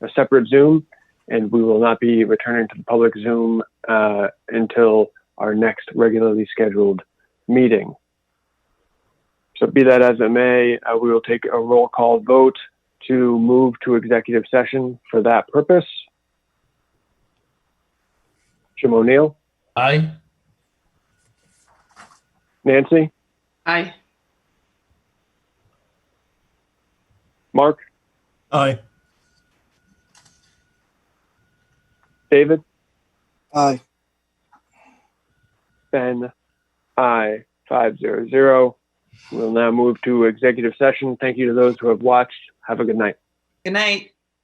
a separate Zoom, and we will not be returning to the public Zoom uh, until our next regularly scheduled meeting. So be that as it may, uh, we will take a roll call vote to move to executive session for that purpose. Jim O'Neill, Aye. Nancy, Aye. Mark, Aye. David, Aye. Ben, I, five zero zero. We'll now move to executive session. Thank you to those who have watched. Have a good night. Good night.